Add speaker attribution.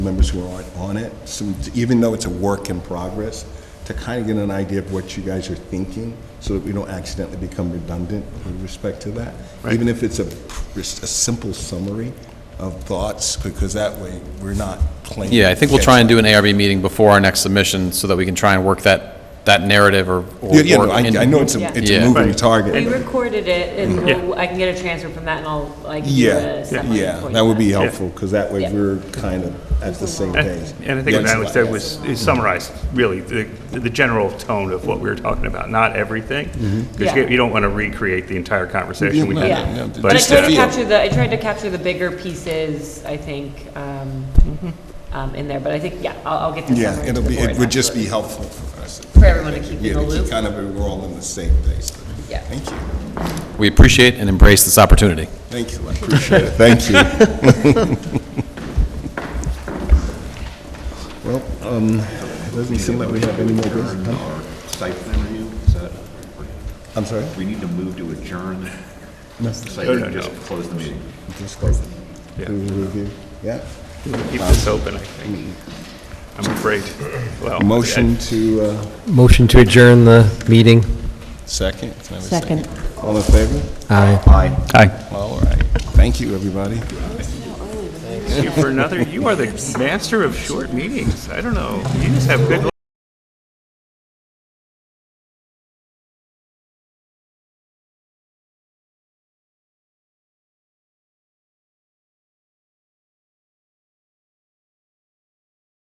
Speaker 1: members who aren't on it, some, even though it's a work in progress, to kind of get an idea of what you guys are thinking, so that we don't accidentally become redundant with respect to that. Even if it's a, just a simple summary of thoughts, because that way, we're not claiming.
Speaker 2: Yeah, I think we'll try and do an ARB meeting before our next submission so that we can try and work that, that narrative or. or
Speaker 1: Yeah, yeah, no,
Speaker 2: work
Speaker 1: I,
Speaker 2: in-
Speaker 1: I know it's a, it's
Speaker 2: Yeah.
Speaker 1: a moving
Speaker 3: Right.
Speaker 1: target.
Speaker 4: We recorded it, and
Speaker 3: Yeah.
Speaker 4: we'll- I can get a transcript from that, and I'll, like, do
Speaker 1: Mm-hmm. Yeah,
Speaker 4: a separate
Speaker 1: yeah,
Speaker 4: for
Speaker 1: that
Speaker 4: you
Speaker 1: would be
Speaker 4: guys.
Speaker 1: helpful, because that way
Speaker 4: Yeah.
Speaker 1: we're kind of at the same
Speaker 3: And
Speaker 1: page.
Speaker 3: and I think
Speaker 1: Yes.
Speaker 3: what Natalie said was, it summarized really the, the general tone of what we were talking about, not everything. Because you
Speaker 4: Yeah.
Speaker 3: you don't want to recreate the entire conversation we
Speaker 1: no,
Speaker 3: had.
Speaker 4: Yeah,
Speaker 1: no,
Speaker 4: but I
Speaker 1: just
Speaker 4: tried to
Speaker 1: feel.
Speaker 4: capture the, I tried to capture the bigger pieces, I think, um, um, in there, but I think, yeah, I'll, I'll get the
Speaker 1: Mm-hmm. Yeah,
Speaker 4: summary to
Speaker 1: it'll
Speaker 4: the
Speaker 1: be,
Speaker 4: board,
Speaker 1: it would just be
Speaker 4: absolutely.
Speaker 1: helpful for us.
Speaker 4: For everyone to keep in
Speaker 1: Yeah,
Speaker 4: the
Speaker 1: to keep
Speaker 4: loop.
Speaker 1: Kind of, we're all in the same place.
Speaker 4: Yeah.
Speaker 1: Thank you,
Speaker 2: We appreciate and embrace this opportunity.
Speaker 1: thank you, I appreciate it, thank you. Well, um, it doesn't seem like we have any more business. huh?
Speaker 5: Our site plan review, is that,
Speaker 1: I'm sorry?
Speaker 5: we need to move to adjourn. Site
Speaker 3: No, no,
Speaker 5: review, just close the meeting.
Speaker 1: Just close it.
Speaker 3: Yeah.
Speaker 1: Do we review? Yeah?
Speaker 3: Keep this open, I think. I'm afraid. Well, I-
Speaker 1: Motion to, uh,
Speaker 6: Motion to adjourn the meeting.
Speaker 1: second? Can I have a
Speaker 7: Second.
Speaker 1: All in favor?
Speaker 6: Aye.
Speaker 1: Aye.
Speaker 2: Aye.
Speaker 1: All right, thank you, everybody.
Speaker 3: Thank you for another, you are the master of short meetings. I don't know, you just have good